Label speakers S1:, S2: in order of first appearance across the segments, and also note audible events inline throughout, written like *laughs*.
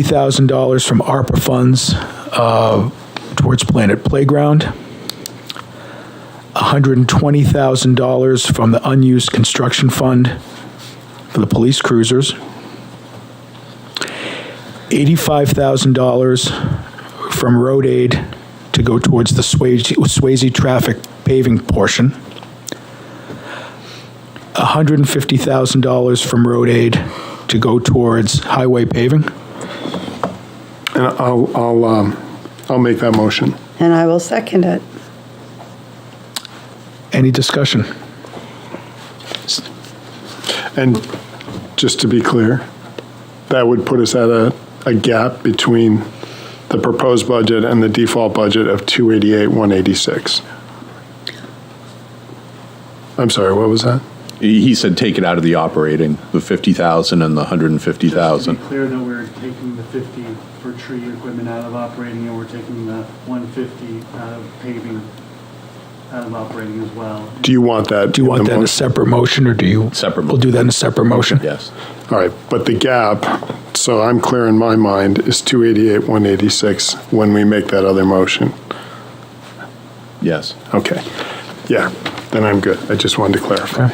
S1: $60,000 from ARPA funds uh, towards Planet Playground, $120,000 from the unused construction fund for the police cruisers, $85,000 from road aid to go towards the Swayze Swayze traffic paving portion, $150,000 from road aid to go towards highway paving.
S2: And I'll, I'll, um, I'll make that motion.
S3: And I will second it.
S1: Any discussion?
S2: And just to be clear, that would put us at a, a gap between the proposed budget and the default budget of 288, 186. I'm sorry, what was that?
S4: He he said take it out of the operating, the 50,000 and the 150,000.
S5: Just to be clear, though, we're taking the 50 for tree equipment out of operating, and we're taking the 150 out of paving, out of operating as well.
S2: Do you want that?
S1: Do you want
S2: in the
S1: that in a
S2: motion?
S1: separate motion, or do you?
S4: Separate
S1: We'll do that in a separate motion.
S4: Yes.
S2: All right, but the gap, so I'm clear in my mind, is 288, 186 when we make that other motion.
S4: Yes.
S2: Okay. Yeah, then I'm good. I just wanted to clarify.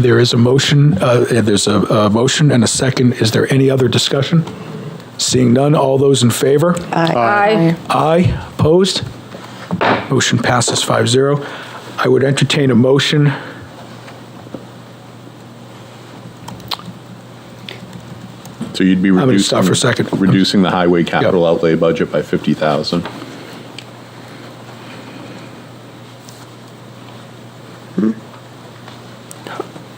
S1: There is a motion, uh, there's a, a motion and a second. Is there any other discussion? Seeing none, all those in favor?
S6: Aye.
S1: Aye, opposed? Motion passes 5-0. I would entertain a motion.
S4: So you'd be reducing.
S1: gonna stop for a second.
S4: Reducing the highway capital outlay budget by 50,000.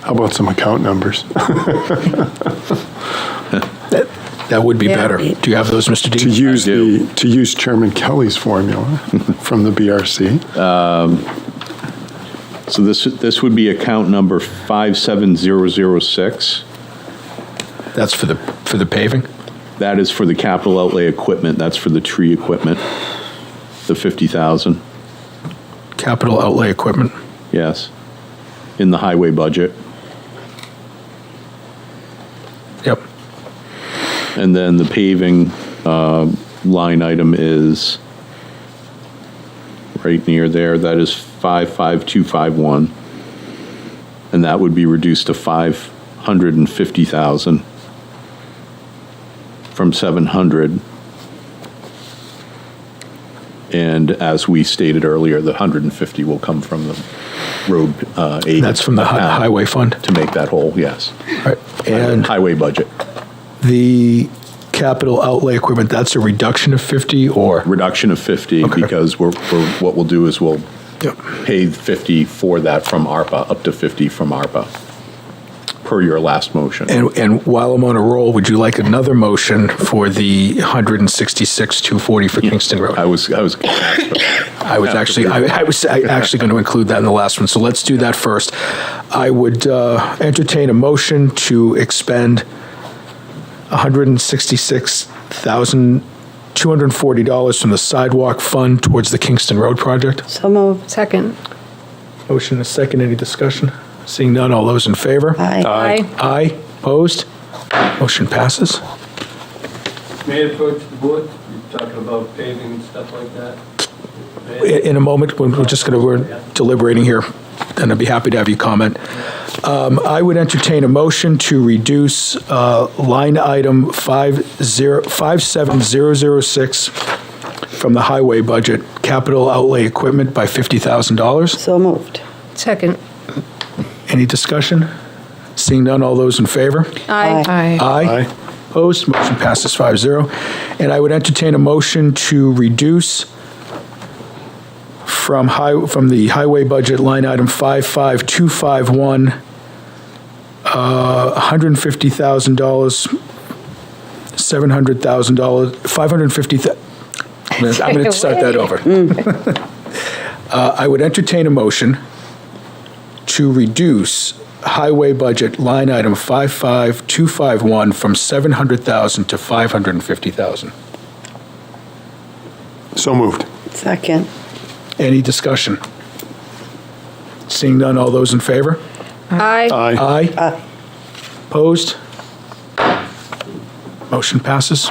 S2: How about some account numbers?
S1: That would be
S6: Yeah.
S1: better. Do you have those, Mr.
S2: To
S1: Dean?
S2: use
S4: do.
S2: the, to use Chairman Kelly's formula *laughs* from the BRC.
S4: So this, this would be account number 57006.
S1: That's for the, for the paving?
S4: That is for the capital outlay equipment, that's for the tree equipment, the 50,000,
S1: Capital outlay equipment.
S4: yes, in the highway budget.
S1: Yep.
S4: And then the paving uh, line item is right near there, that is 55251. And that would be reduced to 550,000 from 700. And as we stated earlier, the 150 will come from the road uh, aid.
S1: That's from the
S2: Ah.
S1: hi-
S4: account
S1: highway fund.
S4: To make that whole, yes.
S1: All right. And
S4: Highway budget,
S1: the capital outlay equipment, that's a reduction of 50 or?
S4: reduction of 50
S1: Okay.
S4: because we're, we're- what we'll do is we'll
S1: Yep.
S4: pay 50 for that from ARPA, up to 50 from ARPA, per your last motion.
S1: And, and while I'm on a roll, would you like another motion for the 166, 240 for Kingston
S4: I
S1: Road?
S4: was, I was, gonna ask for that.
S1: I was actually, I I was I actually going to include that in the last one, so let's do that first. I would uh, entertain a motion to expend $166,240 from the sidewalk fund towards the Kingston Road project.
S3: So moved.
S6: Second.
S1: Motion and a second, any discussion? Seeing none, all those in favor?
S3: Aye.
S1: Aye, opposed? Motion passes.
S7: May I approach the board? You're talking about paving and stuff like that?
S1: I- in a moment, when we're just going to, we're deliberating here, and I'd be happy to have you comment. Um, I would entertain a motion to reduce uh, line item 50 57006 from the highway budget, capital outlay equipment by $50,000.
S3: So moved.
S6: Second.
S1: Any discussion? Seeing none, all those in favor?
S6: Aye.
S1: Aye.
S2: Aye.
S1: Opposed? Motion passes 5-0. And I would entertain a motion to reduce from high, from the highway budget line item 55251, uh, $150,000, $700,000, 550, I'm going to start that over. *laughs* Uh, I would entertain a motion to reduce highway budget line item 55251 from 700,000 to 550,000.
S2: So moved.
S3: Second.
S1: Any discussion? Seeing none, all those in favor?
S6: Aye.
S2: Aye.
S1: Aye. Opposed? Motion passes.